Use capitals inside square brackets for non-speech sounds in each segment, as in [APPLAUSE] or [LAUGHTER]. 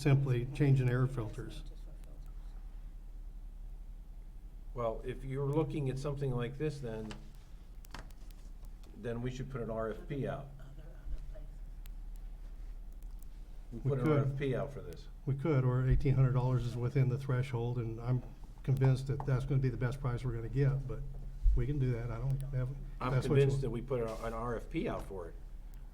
simply changing air filters. Well, if you're looking at something like this, then, then we should put an RFP out. We We put an could. RFP out for this. We could, or eighteen hundred dollars is within the threshold, and I'm convinced that that's gonna be the best price we're gonna get, but we can do that, I don't have. I'm convinced that we put a- an RFP out for it.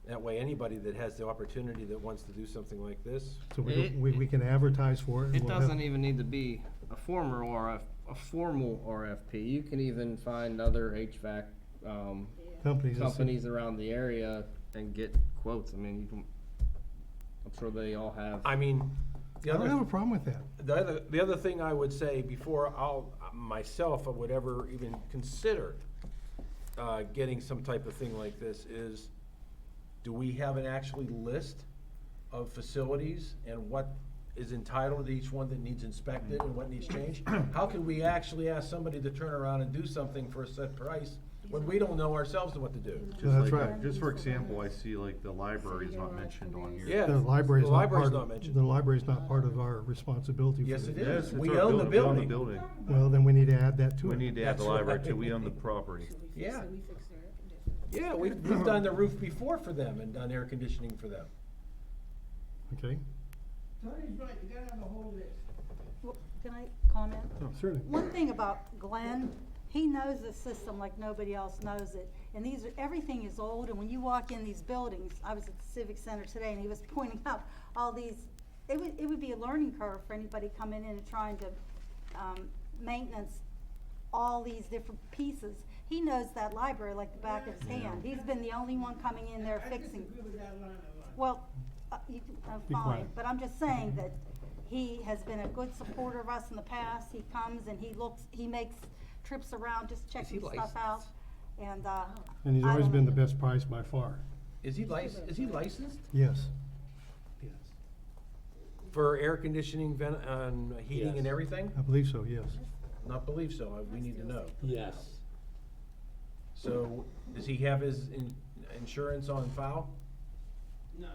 That way, anybody that has the opportunity that wants to do something like this, So we, don't- It- we, we can advertise for it. and It we'll have- doesn't even need to be a former RF, a formal RFP. You can even find other HVAC, um, Companies. that say- companies around the area and get quotes. I mean, you can, I'm sure they all have. I mean, the I other. don't have a problem with that. The other, the other thing I would say before I'll, myself, I would ever even consider uh, getting some type of thing like this is, do we have an actually list of facilities and what is entitled to each one that needs inspected and what needs changed? How can we actually ask somebody to turn around and do something for a set price when we don't know ourselves what to do? Just That's like, right. just for example, I see like the library is not mentioned on here. Yeah. The library's the not part. library's of- not mentioned. The library's not part of our responsibility for Yes, this. it is. Yes, it's We our own the We own the building. building. Well, then we need to add that to it. We need to add the That's library right. too, we own the property. Yeah. So we fixed their air conditioning. Yeah, we've, we've done the roof before for them and done air conditioning for them. Okay, Tony's right, you gotta have a whole list. Well, Can I comment? certainly. One thing about Glenn, he knows the system like nobody else knows it. And these are, everything is old, and when you walk in these buildings, I was at the Civic Center today, and he was [LAUGHS] pointing out all these, it would, it would be a learning curve for anybody coming in and trying to, um, maintenance all these different pieces. He knows that library like the back of his hand. He's been the only one coming in there fixing. I disagree with that line a lot. Well, uh, you, can- uh, Be fine, quiet. but I'm just saying that he has been a good supporter of us in the past. He comes and he looks, he makes trips around, just checking stuff out. And, uh. And he's I always don't been the know. best price by far. Is he licensed, is he licensed? Yes, For air conditioning, vent, and heating and Yes. everything? I believe so, yes. Not believe so, I- we need to know. Yes. So, does he have his in, insurance on file? No,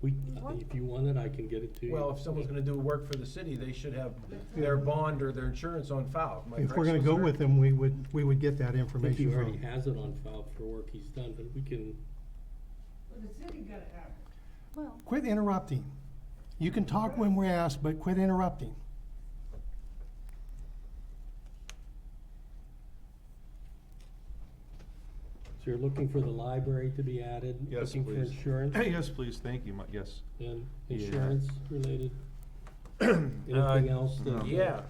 We, if you want it, I can get it to you. Well, if someone's gonna do work for the city, they should have their bond or their insurance on file. Am I If correct, we're gonna go solicitor? with him, we would, we would get that I think he information already from. has it on file for work he's done, but we can, but the city gotta have it. Well, Quit interrupting. You can talk when we're asked, but quit interrupting. so you're looking for the library to be added? Yes, Looking for please. insurance Yes, please, thank you, mu- yes. and Yeah. insurance related? Anything else no. that? Yeah.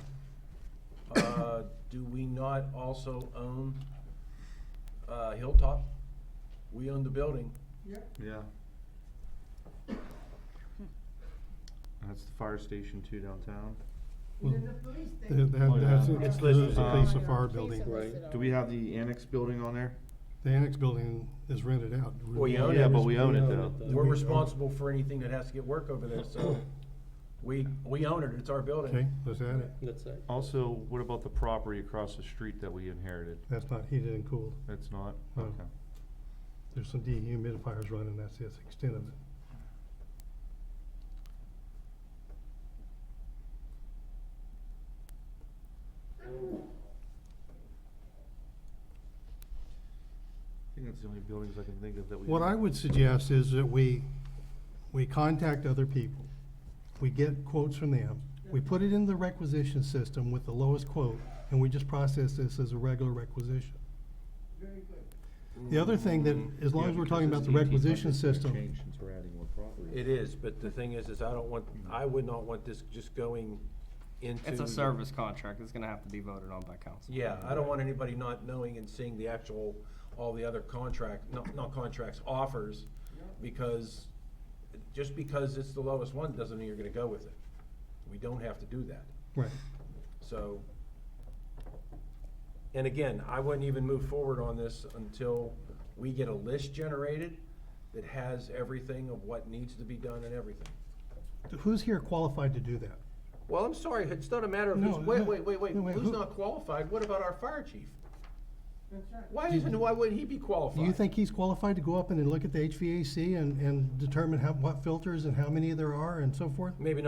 Uh, do we not also own, uh, Hilltop? We own the building. Yep. Yeah. That's the fire station too downtown. And then the police That, station. that, that's, It's it's listed. the police Uh, of fire Please building. don't Right. list it Do all. we have the annex building on there? The annex building is rented out. We own Oh, Yeah, it. but we own it though. Do We're we own- responsible for anything that has to get work over there, so we, we own it, it's our Okay, building. let's add it. That's it. Also, what about the property across the street that we inherited? That's not heated and cooled. That's not, No. okay. There's some dehumidifiers running, that's the extent of it. I think that's the only buildings I can think of that we. What own. I would suggest is that we, we contact other people, we get quotes from them, we put it in the requisition system with the lowest quote, and we just process this as a regular requisition. Very good. The other thing that, as long Yeah, as we're because E talking it's about the 1800 requisition it's gonna system, change since we're adding more property. It is, but the thing is, is I don't want, I would not want this just going into. It's a service contract. It's gonna have to be voted on by council. Yeah, I don't want anybody not knowing and seeing the actual, all the other contract, not, not contracts, offers, because, just because it's the lowest one, doesn't mean you're gonna go with it. We don't have to do that, right, so. And again, I wouldn't even move forward on this until we get a list generated that has everything of what needs to be done and everything. who's here qualified to do that? Well, I'm sorry, it's not a matter of who's, No, wait, no, wait, wait, wait, no, wait, who's who- not qualified? What about our fire chief? That's right. Why isn't, why wouldn't he be Do qualified? you think he's qualified to go up and then look at the HVAC and, and determine how, what filters and how many there are and so forth? Maybe not